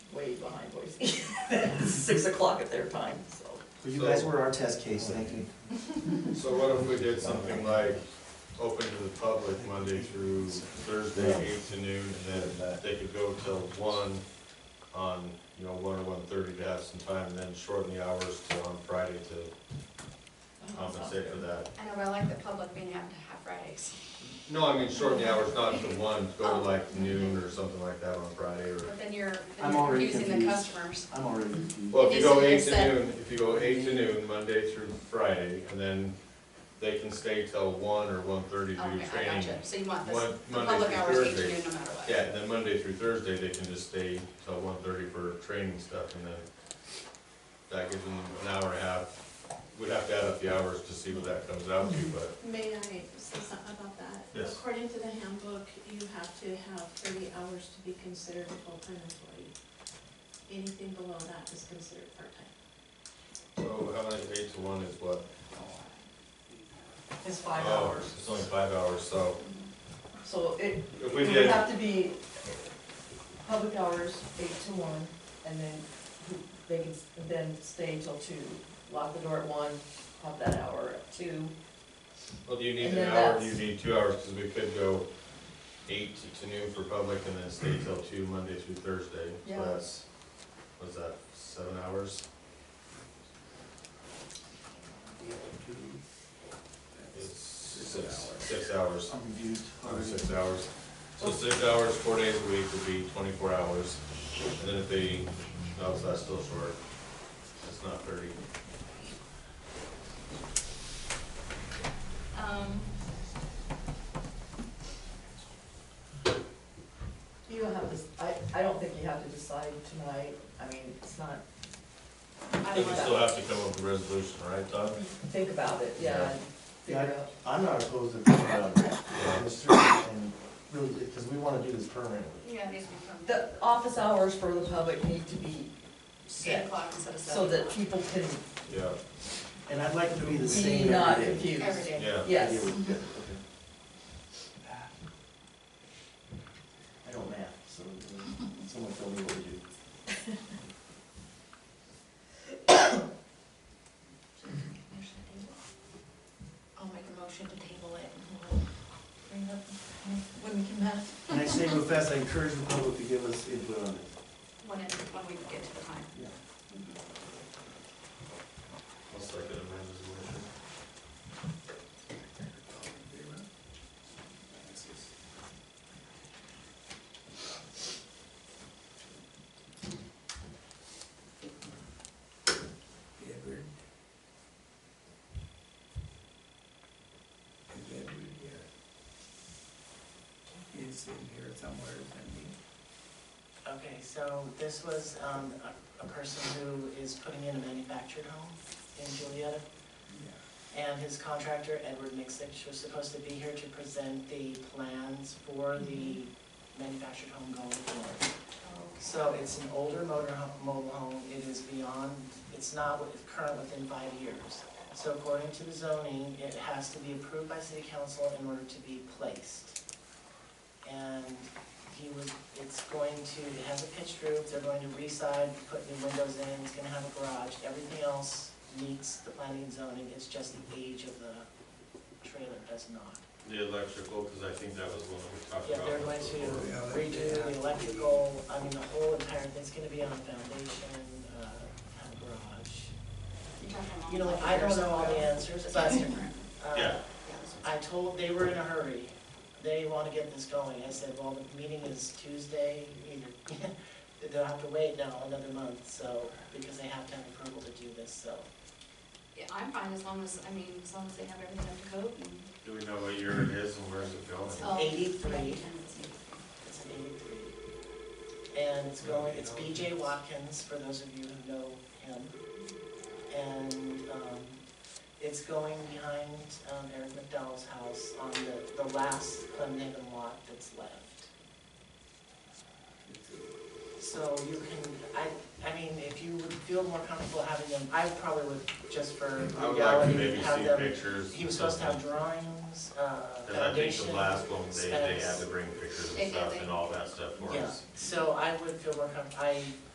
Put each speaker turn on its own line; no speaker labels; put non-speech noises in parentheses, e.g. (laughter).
behind
(laughs)
Boise. It's Six o'clock at their time, so.
But you guys were our test case, thank you.
So what if we did something like open to the public Monday through Thursday, eight to noon, and then they could go till one on, you know, one or one thirty to have some time, and then shorten the hours to on Friday to compensate for that.
I know, but I like the public being able to have Fridays.
No, I mean, shorten the hours, not to one, go to like noon or something like that on Friday, or,
But then you're,
I'm
then you're
already
confusing the
confused.
customers.
I'm already confused.
well, if you go eight to
Basically,
noon, if you go eight to noon, Monday through Friday, and then they can stay till one or one thirty to do
Oh, Okay,
training.
I got you. So you want this,
Mon-
the
Monday
public
through
hours eight to
Thursday.
noon no matter what.
Yeah, and then Monday through Thursday, they can just stay till one thirty for training stuff, and then that gives them an hour and a half. We'd have to add up the hours to see what that comes out to, but
May I say something about that?
Yes.
According to the handbook, you have to have thirty hours to be considered a full-time employee. Anything below that is considered part-time.
so how many, eight to one is what?
It's five
Oh,
hours.
It's only five hours, so
So it,
if we
it would
did,
have to be public hours, eight to one, and then who- they can s- then stay until two. Lock the door at one, have that hour at two.
well, do you need
and
an
then
hour, do you
that's-
need two hours, because we could go eight to noon for public, and then stay till two Monday through Thursday. So
Yeah.
that's, what's that, seven hours? It's six, six hours.
I'm confused.
Five, six hours. So six hours, four days a week would be twenty-four hours, and then if they, no, so that's still short, that's not thirty.
Um,
You don't have to, s- I, I don't think you have to decide tonight. I mean, it's not,
I
They
don't
can
know.
still have to come up with a resolution, right, Todd?
think about it, yeah, and
Yeah.
figure out.
I'm not opposed to thinking about it, it was through, and really, because we want to do this permanently.
Yeah, these are
The office hours for the public need to be
from eight
set
o'clock instead of
so
seven.
that people can
Yeah,
And I'd like it to be the
be
same
not
every day.
confused.
Every day.
yeah.
Yes.
Yeah, we- yeah, okay. I don't math, so uh, someone tell me what to do.
(laughs)
I'll make a motion to table it and we'll bring it up when we can have,
Next thing real fast, I encourage the public to give us input on it.
when it, when we get to the time.
Yeah.
I'll second Amanda's motion.
It's in here somewhere, isn't
Okay, so this was um, a a person who is putting in a manufactured home in Julietta,
it?
and his contractor, Edward Mixich, was supposed to be here to present the plans for the
Mm-hmm.
manufactured home going forward. So it's an older motor, ho- mobile home, it is beyond, it's not wi- current within five years. So according to the zoning, it has to be approved by city council in order to be placed. And he was, it's going to, it has a pitched roof, they're going to re-side, put new windows in, it's gonna have a garage, everything else meets the planning and zoning, it's just the age of the trailer does not.
The electrical, because I think that was one we talked
Yeah,
about.
they're going to
before.
redo the electrical, I mean, the whole entire thing's gonna be on a foundation, uh, have a garage.
You're talking about
You know,
like
I
years
don't know all
ago.
the answers,
It's
but,
different.
uh,
Yeah.
Yeah, this one's-
I told, they were in a hurry, they wanna get this going, I said, well, the meeting is Tuesday, (laughs) either, they'll have to wait now another month, so, because they have to have approval to do this, so.
Yeah, I'm fine as long as, I mean, as long as they have everything up to code and.
Do we know what year it is and where's it going?
Oh,
Eighty-three.
yeah, it's 83.
It's an eighty-three. And it's going, it's BJ Watkins, for those of you who know him. And, um, it's going behind, um, Eric McDowell's house on the, the last Clemhaven lot that's left. So you can, I, I mean, if you would feel more comfortable having them, I probably would, just for
I would like to
reality,
maybe
have
see
them.
pictures.
He was supposed to have drawings, uh,
Because I think
foundation.
the last one, they, they had
specs.
to bring pictures
They
and
did,
stuff
they-
and all that stuff for
Yeah,
us.
so I would feel more comfortable, I